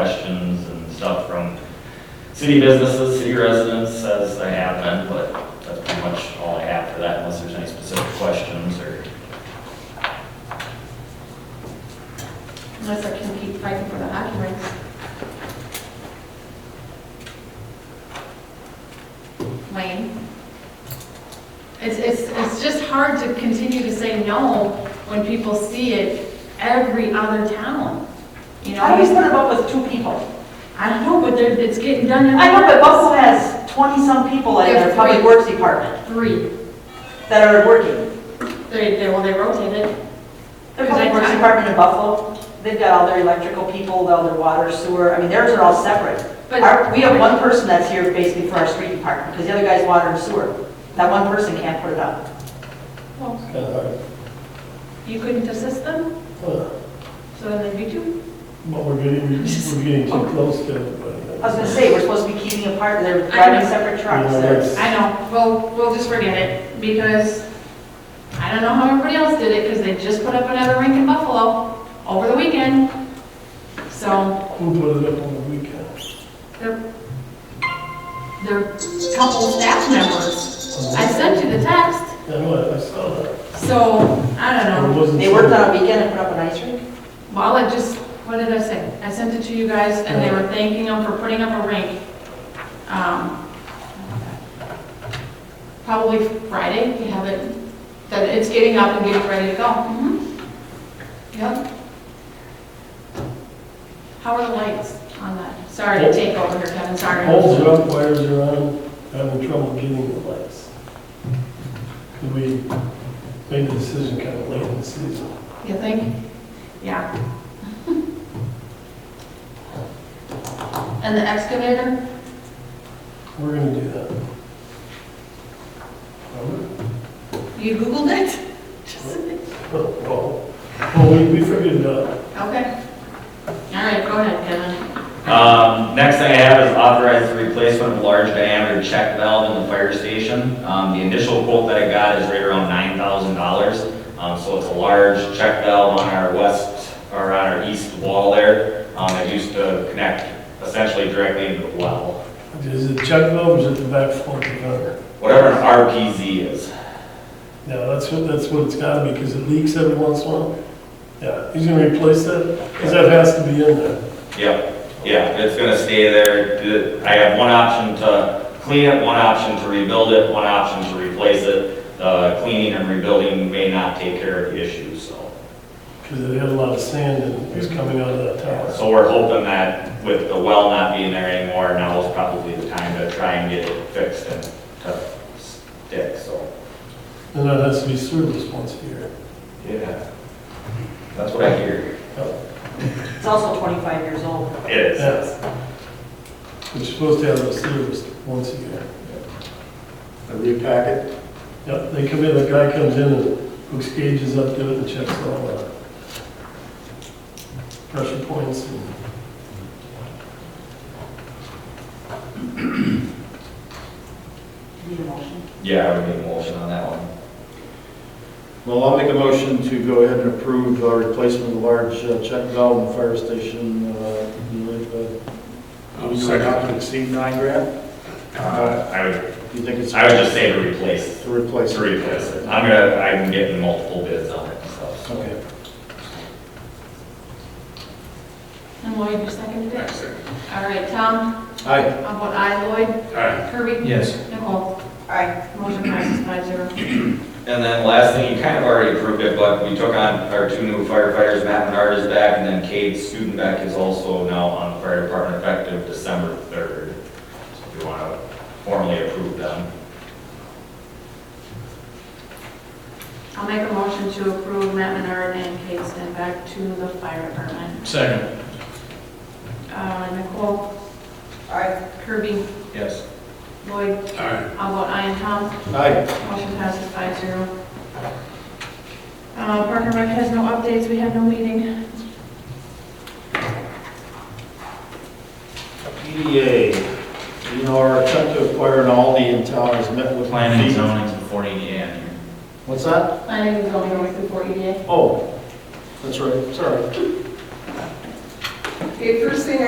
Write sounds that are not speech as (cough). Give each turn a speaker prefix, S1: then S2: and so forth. S1: questions and stuff from city businesses, city residents, as I have been, but that's pretty much all I have for that, unless there's any specific questions or.
S2: Unless I can keep fighting for the hockey rinks. Lane? It's, it's, it's just hard to continue to say no when people see it every other town, you
S3: I always
S2: know?
S3: put them up with two people.
S2: I don't know, but they're- it's getting done
S3: I know, but
S2: every
S3: Buffalo has twenty-some people in their
S2: There's
S3: public
S2: three.
S3: works department
S2: three.
S3: that are working.
S2: They, they, well, they rotate it.
S3: The
S2: Because I-
S3: public works department in Buffalo, they've got all their electrical people, all their water, sewer, I mean, theirs are all separate.
S2: But-
S3: Our- We have one person that's here basically for our street department, because the other guy's water and sewer. That one person can't put it up.
S2: Well,
S4: Kind of
S2: You couldn't assist them,
S4: hard.
S2: so then there'd be two.
S4: But we're getting,
S3: (laughs)
S4: we're getting too close to it.
S3: I was gonna say, we're supposed to be keeping apart, they're
S2: I
S3: driving
S2: know.
S3: separate trucks. They're-
S2: I know, well, we'll just forget it, because I don't know how everybody else did it, because they just put up another rink in Buffalo over the weekend. So,
S4: Who put it up on the weekend?
S2: they're, they're couple staff members. I sent you the text,
S4: I know, I saw that.
S2: so, I don't know.
S3: They worked on a weekend and put up an ice rink?
S2: Well, I just, what did I say? I sent it to you guys, and they were thanking them for putting up a rink. um, Probably Friday, you have it, that it's getting up and getting ready to go. Mhm. Yep. How are the lights on that? Sorry to take over here, Kevin, sorry.
S4: Poles are up, wires are on, having trouble getting the lights. Could we made the decision kind of late in the season?
S2: You think? Yeah. (laughs) And the excavator?
S4: We're gonna do that. Remember?
S2: You Googled it? (laughs) Just-
S4: (laughs) Well, well, we, we figured it out.
S2: Okay. All right, go ahead, Kevin.
S1: Um, next thing I have is authorize the replacement of large diameter check valve in the fire station. Um, the initial quote that I got is right around nine thousand dollars. Um, so it's a large check valve on our west, or on our east wall there. Um, it used to connect essentially directly into the well.
S4: Is it check valve or is it the back fork of the car?
S1: Whatever an RPZ is.
S4: Yeah, that's what, that's what it's gotta be, because it leaks every once in a while. Yeah, he's gonna replace that, because that has to be in there.
S1: Yep, yeah, it's gonna stay there. The- I have one option to clean it, one option to rebuild it, one option to replace it. The cleaning and rebuilding may not take care of the issue, so.
S4: Because it had a lot of sand and it was coming out of that tower.
S1: So we're hoping that with the well not being there anymore, now is probably the time to try and get it fixed and to stick, so.
S4: And that has to be serviced once a year.
S1: Yeah. That's what I hear.
S3: It's also twenty-five years old.
S1: It is.
S4: Yeah. It's supposed to have it serviced once a year.
S5: A repacket?
S4: Yep, they come in, the guy comes in and hooks gauges up to it and checks all the pressure points and
S3: Need a motion?
S1: Yeah, I would make a motion on that one.
S5: Well, I'll make a motion to go ahead and approve uh, replacement of the large uh, check valve in the fire station. uh, with, uh,
S6: I'll
S5: we do
S6: second.
S5: Not to exceed nine grand?
S1: Uh, I would,
S5: Do you think it's?
S1: I would just say to replace,
S5: To replace.
S1: to replace it. I'm gonna, I'm getting multiple bids on it, so.
S5: Okay.
S2: And Lloyd, you seconded it? All right, Tom,
S5: Aye.
S2: how about I, Lloyd? Kirby?
S6: Yes.
S2: Nicole?
S3: Aye.
S2: Motion passes five zero.
S1: And then last thing, you kind of already approved it, but we took on our two new firefighters, Matt Menard is back, and then Cade Studenbeck is also now on the fire department effective December third. So if you want to formally approve them.
S2: I'll make a motion to approve Matt Menard and Kate Stenbeck to the fire department.
S6: Second.
S2: Uh, Nicole,
S3: Aye.
S2: Kirby,
S6: Yes.
S2: Lloyd,
S6: All right.
S2: how about I and Tom?
S5: Aye.
S2: Motion passes five zero. Uh, Park and Rec has no updates, we have no meeting.
S5: PDA, you know, our attempt to acquire an Aldi in town has met with.
S7: Planning and zoning to 480 and here.
S5: What's that?
S2: Planning is only going E through four EDA.
S5: Oh, that's right, sorry.
S8: Okay, first thing